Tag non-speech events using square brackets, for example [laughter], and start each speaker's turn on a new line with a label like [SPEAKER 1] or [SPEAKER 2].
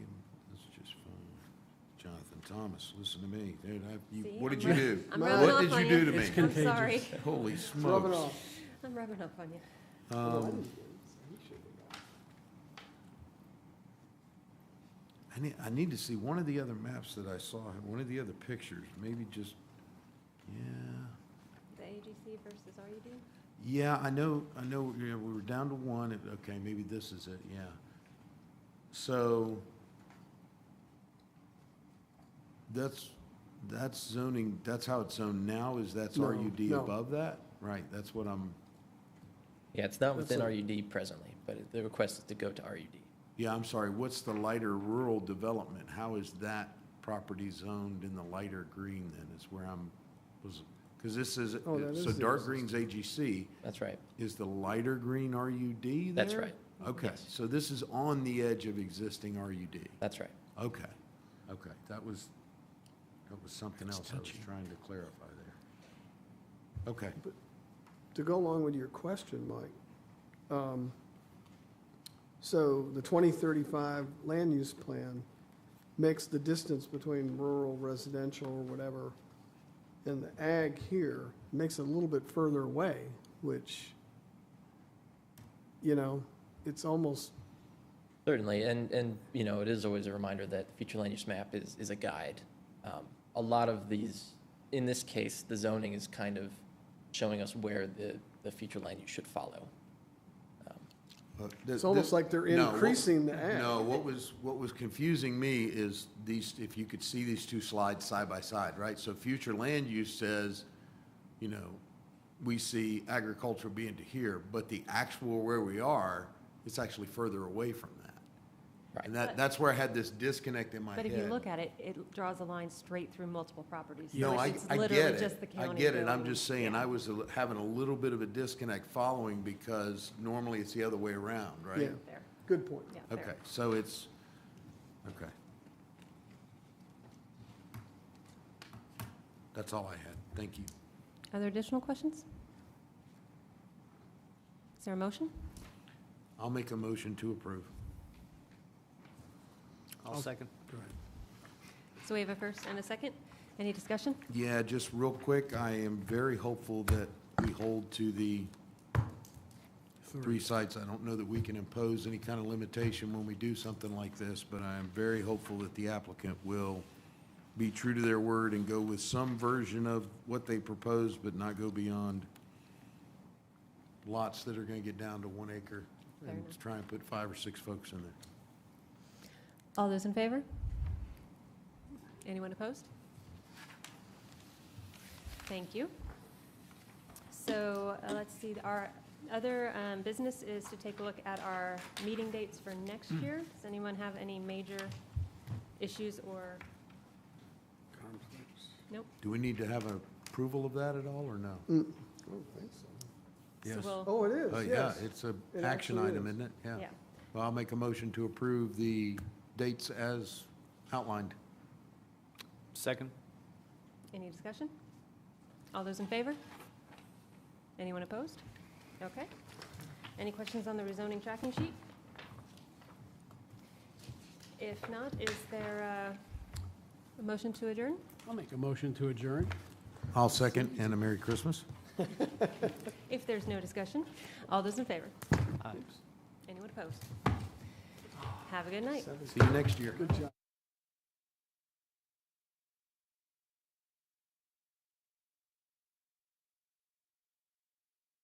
[SPEAKER 1] Thomas, listen to me, dude, I, you,
[SPEAKER 2] See,
[SPEAKER 1] what
[SPEAKER 2] I'm
[SPEAKER 1] did you
[SPEAKER 2] rub-
[SPEAKER 1] do?
[SPEAKER 2] I'm
[SPEAKER 3] rubbing
[SPEAKER 1] What
[SPEAKER 2] off
[SPEAKER 1] did
[SPEAKER 2] on
[SPEAKER 1] you
[SPEAKER 2] you.
[SPEAKER 1] do to
[SPEAKER 3] It's
[SPEAKER 1] me?
[SPEAKER 2] I'm
[SPEAKER 1] [laughs]
[SPEAKER 3] contagious.
[SPEAKER 2] sorry,
[SPEAKER 1] Holy
[SPEAKER 3] Rub it
[SPEAKER 1] smokes.
[SPEAKER 3] off.
[SPEAKER 2] I'm rubbing up on you.
[SPEAKER 1] Um, I need, I need to see one of the other maps that I saw, one of the other pictures, maybe just, yeah.
[SPEAKER 2] The AGC versus RUD?
[SPEAKER 1] Yeah, I know, I know, yeah, we were down to one, and- okay, maybe this is it, yeah. So that's, that's zoning, that's how it's zoned now, is that's
[SPEAKER 3] No,
[SPEAKER 1] RUD
[SPEAKER 3] no.
[SPEAKER 1] above that? Right, that's what I'm,
[SPEAKER 4] Yeah, it's not within
[SPEAKER 3] That's
[SPEAKER 4] RUD presently, but it- the request is to go to RUD.
[SPEAKER 1] yeah, I'm sorry, what's the lighter rural development? How is that property zoned in the lighter green then, is where I'm, was, because this is,
[SPEAKER 3] Oh, that
[SPEAKER 1] so
[SPEAKER 3] is the
[SPEAKER 1] dark
[SPEAKER 3] existing.
[SPEAKER 1] green's AGC,
[SPEAKER 4] That's right.
[SPEAKER 1] Is the lighter green RUD there?
[SPEAKER 4] That's right.
[SPEAKER 1] Okay, so this is on the edge of existing RUD.
[SPEAKER 4] That's right.
[SPEAKER 1] Okay, okay, that was, that was something else I was trying to clarify there. Okay,
[SPEAKER 3] To go along with your question, Mike, um, so the 2035 land use plan makes the distance between rural, residential, or whatever, and the ag here makes it a little bit further away, which, you know, it's almost,
[SPEAKER 4] Certainly, and, and, you know, it is always a reminder that future land use map is, is a guide. Um, A lot of these, in this case, the zoning is kind of showing us where the, the future land use should follow.
[SPEAKER 1] but thi-
[SPEAKER 3] it's almost
[SPEAKER 1] Uh, this-
[SPEAKER 3] like they're
[SPEAKER 1] no, what-
[SPEAKER 3] increasing the ag.
[SPEAKER 1] No, what was, what was confusing me is these, if you could see these two slides side by side, right? So future land use says, you know, we see agriculture being to here, but the actual where we are, it's actually further away from that.
[SPEAKER 4] Right.
[SPEAKER 1] And that, that's where I had this disconnect in my head.
[SPEAKER 2] But if you look at it, it draws a line straight through multiple properties. So
[SPEAKER 1] No,
[SPEAKER 2] it's-
[SPEAKER 1] I,
[SPEAKER 2] it's
[SPEAKER 1] I
[SPEAKER 2] literally
[SPEAKER 1] get
[SPEAKER 2] just the
[SPEAKER 1] it. I
[SPEAKER 2] county
[SPEAKER 1] get it. I'm
[SPEAKER 2] going-
[SPEAKER 1] just saying,
[SPEAKER 2] yeah.
[SPEAKER 1] I was a li- having a little bit of a disconnect following because normally it's the other way around, right?
[SPEAKER 3] Yeah.
[SPEAKER 2] There,
[SPEAKER 3] Good point.
[SPEAKER 2] yeah, there.
[SPEAKER 1] Okay, so it's, okay. That's all I had. Thank you.
[SPEAKER 2] Are there additional questions? Is there a motion?
[SPEAKER 1] I'll make a motion to approve.
[SPEAKER 5] I'll second.
[SPEAKER 2] So we have a first and a second. Any discussion?
[SPEAKER 1] Yeah, just real quick, I am very hopeful that we hold to the three sites. I don't know that we can impose any kind of limitation when we do something like this, but I am very hopeful that the applicant will be true to their word and go with some version of what they proposed, but not go beyond lots that are going to get down to one acre
[SPEAKER 2] Fair
[SPEAKER 1] and
[SPEAKER 2] enough.
[SPEAKER 1] try and put five or six folks in there.
[SPEAKER 2] All those in favor? Anyone opposed? Thank you. So uh, let's see, our other um, business is to take a look at our meeting dates for next
[SPEAKER 1] Hmm.
[SPEAKER 2] year. Does anyone have any major issues or, nope?
[SPEAKER 1] Do we need to have an approval of that at all, or no?
[SPEAKER 3] Mm. I don't think so.
[SPEAKER 2] So
[SPEAKER 1] Yes.
[SPEAKER 2] we'll-
[SPEAKER 3] Oh, it
[SPEAKER 1] Oh,
[SPEAKER 3] is,
[SPEAKER 1] yeah,
[SPEAKER 3] yes.
[SPEAKER 1] it's a
[SPEAKER 3] It
[SPEAKER 1] action
[SPEAKER 3] actually
[SPEAKER 1] item,
[SPEAKER 3] is.
[SPEAKER 1] isn't it? Yeah.
[SPEAKER 2] Yeah,
[SPEAKER 1] Well, I'll make a motion to approve the dates as outlined.
[SPEAKER 5] Second?
[SPEAKER 2] any discussion? All those in favor? Anyone opposed? Okay. Any questions on the rezoning tracking sheet? If not, is there uh, a motion to adjourn?
[SPEAKER 6] I'll make a motion to adjourn.
[SPEAKER 1] I'll second, and a Merry Christmas.
[SPEAKER 2] If there's no discussion, all those in favor?
[SPEAKER 5] Aye.
[SPEAKER 2] Anyone opposed? Have a good night.
[SPEAKER 3] Seven-
[SPEAKER 1] See you next year.
[SPEAKER 3] Good job.